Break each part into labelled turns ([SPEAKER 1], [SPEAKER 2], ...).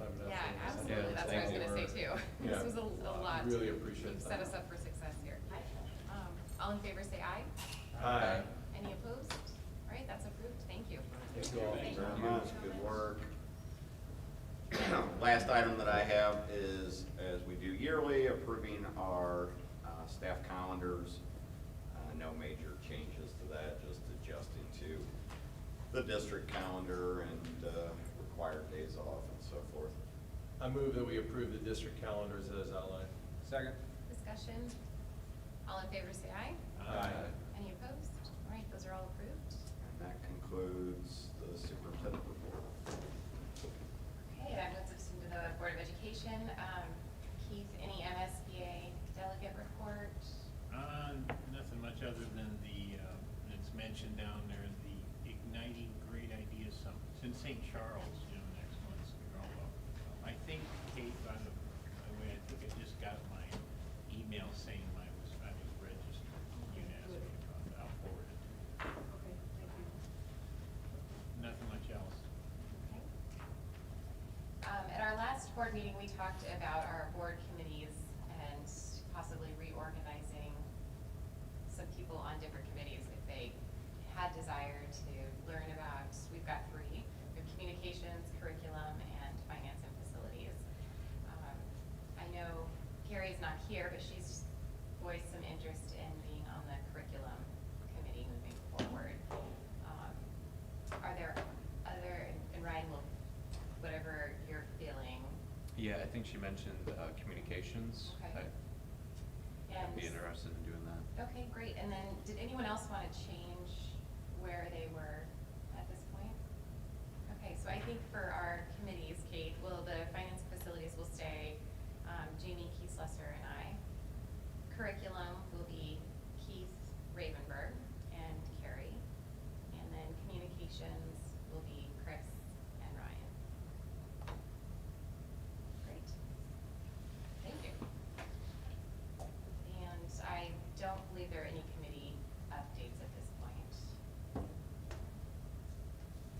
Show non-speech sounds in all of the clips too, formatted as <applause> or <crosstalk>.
[SPEAKER 1] <laughs> Uh,
[SPEAKER 2] lot
[SPEAKER 1] Really
[SPEAKER 2] to
[SPEAKER 1] appreciate that.
[SPEAKER 2] set us up for success here. Um, All in favor, say aye.
[SPEAKER 1] Aye.
[SPEAKER 2] Any opposed? All right, that's approved, thank you.
[SPEAKER 1] Thank you all very much.
[SPEAKER 3] Good work. Last item that I have is, as we do yearly, approving our uh, staff calendars. Uh, No major changes to that, just adjusting to the district calendar and uh, required days off and so forth.
[SPEAKER 1] I move that we approve the district calendars as outlined.
[SPEAKER 4] Second.
[SPEAKER 2] Discussion? All in favor, say aye.
[SPEAKER 1] Aye.
[SPEAKER 2] Any opposed? All right, those are all approved.
[SPEAKER 3] And that concludes the superintendent report.
[SPEAKER 2] Okay, that moves us into the Board of Education. Um, Keith, any MSBA delegate report?
[SPEAKER 5] Uh, nothing much other than the, uh, it's mentioned down there, the Igniting Great Ideas Summit. It's in St. Charles, you know, next month, so you're all welcome. to come. I think, Kate, by the by the way, I think I just got my email saying I was, I was registered. You can ask me about that. I'll forward it. to you.
[SPEAKER 6] Okay, thank you.
[SPEAKER 5] Nothing much else.
[SPEAKER 2] Um, At our last board meeting, we talked about our board committees and possibly reorganizing some people on different committees if they had desire to learn about, we've got three, we have communications, curriculum, and finance and facilities. Um, I know Carrie's not here, but she's voiced some interest in being on the curriculum committee moving forward. Um, Are there other, and Ryan will, whatever you're feeling,
[SPEAKER 7] Yeah, I think she mentioned uh, communications.
[SPEAKER 2] Okay.
[SPEAKER 7] I- I'd be
[SPEAKER 2] And-
[SPEAKER 7] interested in doing that.
[SPEAKER 2] Okay, great, and then, did anyone else want to change where they were at this point? Okay, so I think for our committees, Kate, will the finance facilities will stay, um, Jamie Keith Lesser and I. Curriculum will be Keith Ravenberg and Carrie. And then communications will be Chris and Ryan. Great. Thank you. And I don't believe there are any committee updates at this point.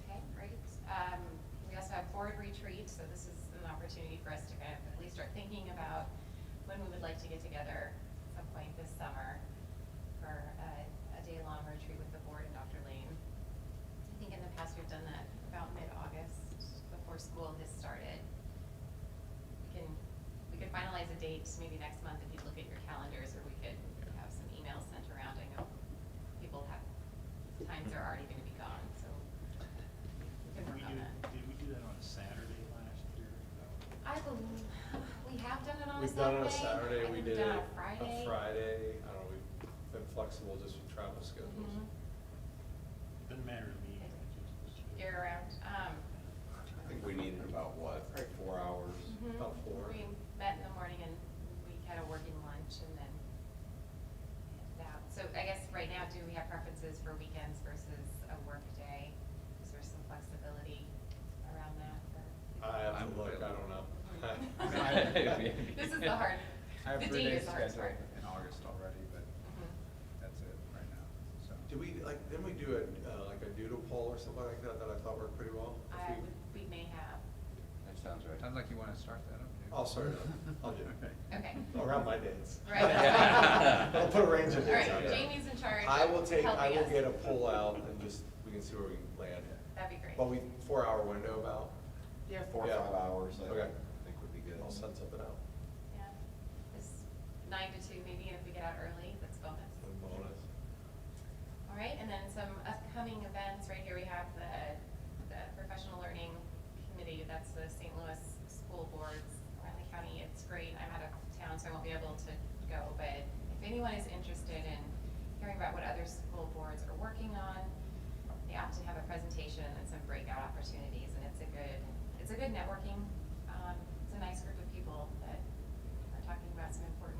[SPEAKER 2] Okay, great. Um, we also have board retreat, so this is an opportunity for us to kind of at least start thinking about when we would like to get together at some point this summer for a, a day-long retreat with the board and Dr. Lane. I think in the past, we've done that about mid-August, before school has started we can, we could finalize a date maybe next month if you look at your calendars, or we could have some emails sent around. I know people have, times are already gonna be gone, so we can
[SPEAKER 5] Did we
[SPEAKER 2] work on
[SPEAKER 5] do,
[SPEAKER 2] that.
[SPEAKER 5] did we do that on a Saturday last year? No.
[SPEAKER 2] I believe, we have done it on a Saturday.
[SPEAKER 1] We've done it on a
[SPEAKER 2] I
[SPEAKER 1] Saturday,
[SPEAKER 2] think
[SPEAKER 1] we
[SPEAKER 2] we've
[SPEAKER 1] did it
[SPEAKER 2] done it on
[SPEAKER 1] a Friday, I don't know, we've been flexible just with travel schedules.
[SPEAKER 2] Mhm.
[SPEAKER 5] Doesn't matter to me. I just-
[SPEAKER 2] Year round, um.
[SPEAKER 3] I think we needed about, what, four hours?
[SPEAKER 2] mhm.
[SPEAKER 1] Mm-hmm. About four.
[SPEAKER 2] We met in the morning and we had a working lunch and then handed out. So I guess right now, do we have preferences for weekends versus a work day? Is there some flexibility around that for?
[SPEAKER 1] I have
[SPEAKER 7] I'm
[SPEAKER 1] to look, I don't know.
[SPEAKER 7] available.
[SPEAKER 2] This is the hard,
[SPEAKER 4] <laughs> I have
[SPEAKER 2] the
[SPEAKER 4] three
[SPEAKER 2] D
[SPEAKER 4] days
[SPEAKER 2] is the hard part.
[SPEAKER 4] scheduled in August already, but
[SPEAKER 2] Mhm.
[SPEAKER 4] that's it right now, so.
[SPEAKER 1] Did we, like, didn't we do a, uh, like a doodle poll or something like that, that I thought worked pretty well? If
[SPEAKER 2] Mm-hmm. I,
[SPEAKER 1] we-
[SPEAKER 2] would- we may have,
[SPEAKER 7] That sounds right.
[SPEAKER 4] Sounds like you wanna start that up, Dave.
[SPEAKER 1] I'll sort it out. Oh, I'll do it.
[SPEAKER 4] Okay.
[SPEAKER 2] okay.
[SPEAKER 1] Around my dates.
[SPEAKER 2] Right.
[SPEAKER 1] I'll put a range of
[SPEAKER 2] All
[SPEAKER 1] dates
[SPEAKER 2] right,
[SPEAKER 1] out there.
[SPEAKER 2] Jamie's in charge
[SPEAKER 1] I will take, I
[SPEAKER 2] helping
[SPEAKER 1] will
[SPEAKER 2] us.
[SPEAKER 1] get a poll out and just, we can see where we can land.
[SPEAKER 2] That'd be great.
[SPEAKER 1] But we, four hour window about,
[SPEAKER 3] Yeah. Four,
[SPEAKER 1] Yeah.
[SPEAKER 3] five hours, I
[SPEAKER 1] Okay.
[SPEAKER 3] think would be good.
[SPEAKER 1] I'll send something out.
[SPEAKER 2] Yeah, it's nine to two maybe, and if we get out early, that's bonus.
[SPEAKER 1] A bonus.
[SPEAKER 2] All right, and then some upcoming events, right here we have the, the Professional Learning Committee, that's the St. Louis School Boards around the county, it's great, I'm out of town, so I won't be able to go, but if anyone is interested in hearing about what other school boards are working on, they often have a presentation and some breakout opportunities, and it's a good, it's a good networking, um, it's a nice group of people that are talking about some important Um, <laughs> Um, oh,